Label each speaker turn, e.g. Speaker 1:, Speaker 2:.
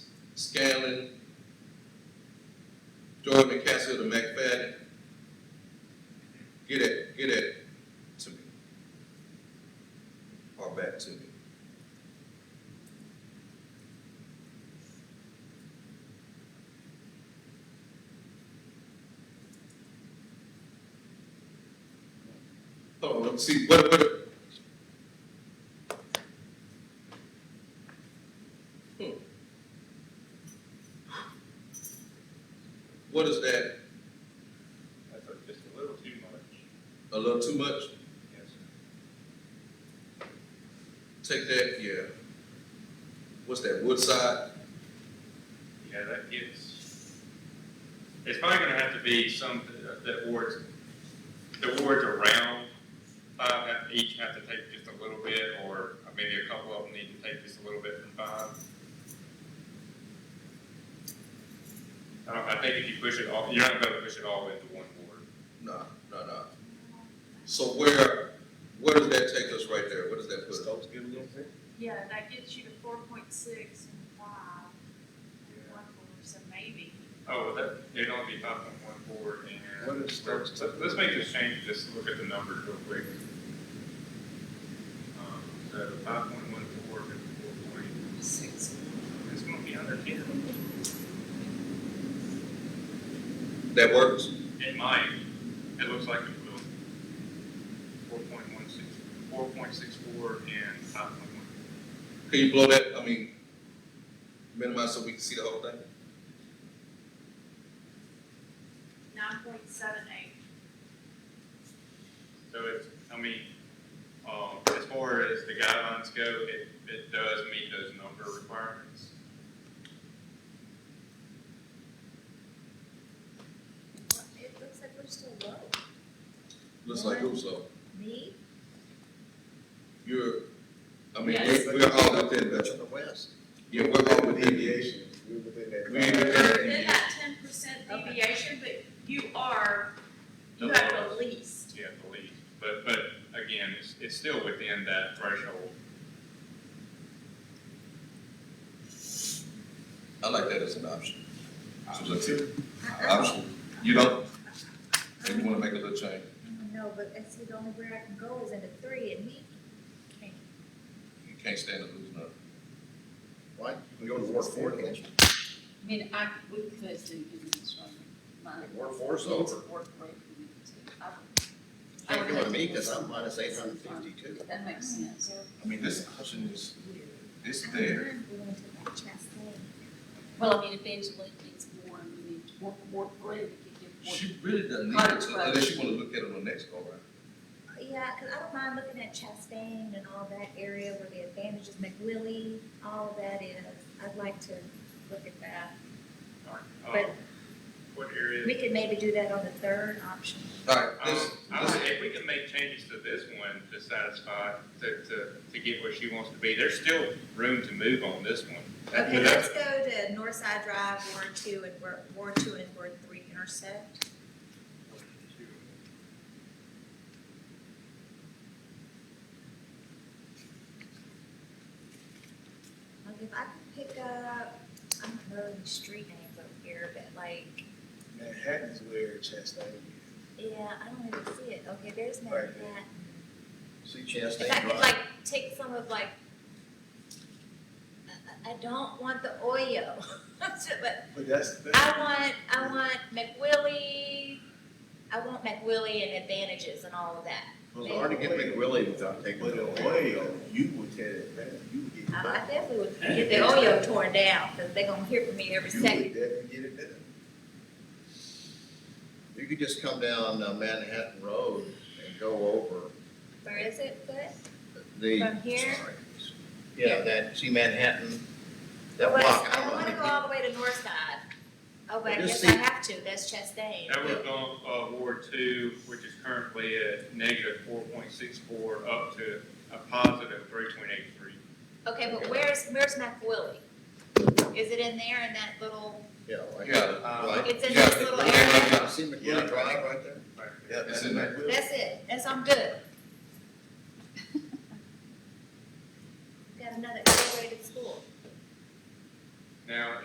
Speaker 1: Scanlon, Jordan McCaskill to McFadden. Get it, get it to me. Or back to me. Hold on, see, what, what, what is that?
Speaker 2: That's a- just a little too much.
Speaker 1: A little too much?
Speaker 2: Yes.
Speaker 1: Take that, yeah. What's that, Woodside?
Speaker 2: Yeah, that gets, it's probably gonna have to be some, that- that wards, the wards around five have, each have to take just a little bit, or maybe a couple of them need to take just a little bit from five. I don't, I think if you push it all, you're not gonna push it all into one ward.
Speaker 1: No, no, no. So where, where does that take us right there? Where does that put us?
Speaker 3: Yeah, that gets you to four point six and five, and one four, so maybe.
Speaker 2: Oh, well, that, it'd only be five point one ward and.
Speaker 4: What is that?
Speaker 2: Let's, let's make this change, just look at the numbers real quick. Um, So five point one ward and four point
Speaker 3: Six.
Speaker 2: It's gonna be under ten.
Speaker 1: That works?
Speaker 2: It might, it looks like it will. Four point one six, four point six four and five point one.
Speaker 1: Can you blow that, I mean, minimize so we can see the whole thing?
Speaker 3: Nine point seven eight.
Speaker 2: So it's, I mean, um, as far as the guidelines go, it, it does meet those number requirements.
Speaker 5: It looks like we're still low.
Speaker 1: Looks like who's up?
Speaker 5: Me?
Speaker 1: You're, I mean,
Speaker 3: Yes.
Speaker 1: we're, we're all within that.
Speaker 4: the west.
Speaker 1: Yeah, we're all within the age.
Speaker 4: We're within that.
Speaker 1: We ain't within
Speaker 3: You're
Speaker 1: that.
Speaker 3: in
Speaker 1: age.
Speaker 3: that ten percent deviation, but you are, you
Speaker 2: The
Speaker 3: have the
Speaker 2: lowest.
Speaker 3: least.
Speaker 2: Yeah, I believe, but, but again, it's, it's still within that threshold.
Speaker 1: I like that as an option. So let's see.
Speaker 5: I-
Speaker 1: Option, you don't, if you wanna make a little change.
Speaker 5: I don't know, but I see the only where I can go is into three and he can't.
Speaker 1: You can't stand to lose none.
Speaker 4: What? We go to workforce,
Speaker 6: I mean, I, we could do business from my.
Speaker 4: workforce
Speaker 6: kids'
Speaker 4: over.
Speaker 6: work rate would be too. I would-
Speaker 4: Can't do it me, cause I'm minus eight hundred fifty-two.
Speaker 6: That makes sense.
Speaker 1: I mean, this option is, it's there.
Speaker 5: I'm going to that Chastain.
Speaker 6: Well, I mean, eventually it gets more, and we need to work, work rate, it could get
Speaker 1: She really doesn't need it to- unless you wanna look at it on next go around.
Speaker 5: Yeah, cause I don't mind looking at Chastain and all that area where the advantages, McWillie, all of that is. I'd like to look at that.
Speaker 2: Alright,
Speaker 5: But-
Speaker 2: um, What area?
Speaker 5: We could maybe do that on the third option.
Speaker 1: Alright,
Speaker 2: Um,
Speaker 1: this,
Speaker 2: I
Speaker 1: this,
Speaker 2: would, if we can make changes to this one to satisfy, to, to, to get where she wants to be, there's still room to move on this one. That-
Speaker 5: Okay,
Speaker 2: that's-
Speaker 5: let's go to Northside Drive, Ward Two and Ward, Ward Two and Ward Three intersect. Like if I could pick up, I don't know the street names over here, but like,
Speaker 4: Manhattan's where Chastain is.
Speaker 5: yeah, I don't even see it. Okay, there's
Speaker 4: Right.
Speaker 5: Manhattan.
Speaker 4: See
Speaker 5: If I
Speaker 4: Chastain
Speaker 5: could
Speaker 4: Drive.
Speaker 5: like take some of like, I- I, I don't want the Oyo, but
Speaker 4: But that's, that's,
Speaker 5: I want, I want McWillie, I want McWillie and advantages and all of that.
Speaker 7: Well, it's hard to get McWillie without taking
Speaker 4: but
Speaker 7: it
Speaker 4: the
Speaker 7: away.
Speaker 4: oil, you would tell it back, you would get it
Speaker 5: I, I
Speaker 4: back.
Speaker 5: definitely would get the Oyo torn down, because they're gonna hear from me every
Speaker 4: You would
Speaker 5: second.
Speaker 4: definitely get it back.
Speaker 7: You could just come down uh, Manhattan Road and go over
Speaker 5: Where is it, but?
Speaker 7: the.
Speaker 5: From here?
Speaker 7: Sorry. Yeah, that, see Manhattan, that
Speaker 5: Well,
Speaker 7: block, I
Speaker 5: I
Speaker 7: don't
Speaker 5: don't
Speaker 7: know.
Speaker 5: wanna go
Speaker 7: how
Speaker 5: all the way to North Side. Oh, but I
Speaker 7: Well, just
Speaker 5: guess I
Speaker 7: see-
Speaker 5: have to, that's Chastain.
Speaker 2: That would go, uh, Ward two, which is currently at negative four point six four, up to a positive three point eight three.
Speaker 5: Okay, but where's, where's McWillie? Is it in there in that little,
Speaker 7: many- Yeah, like.
Speaker 1: Yeah,
Speaker 2: uh,
Speaker 7: like-
Speaker 5: it's in
Speaker 1: Yeah,
Speaker 5: this little
Speaker 1: yeah,
Speaker 5: area?
Speaker 7: Yeah, See
Speaker 4: Yeah.
Speaker 7: McWillie Drive right there?
Speaker 4: Yeah,
Speaker 1: It's
Speaker 4: that's
Speaker 1: in
Speaker 4: in
Speaker 1: there.
Speaker 4: that. will.
Speaker 5: That's it, that's, I'm good. Got another integrated school.
Speaker 2: Now,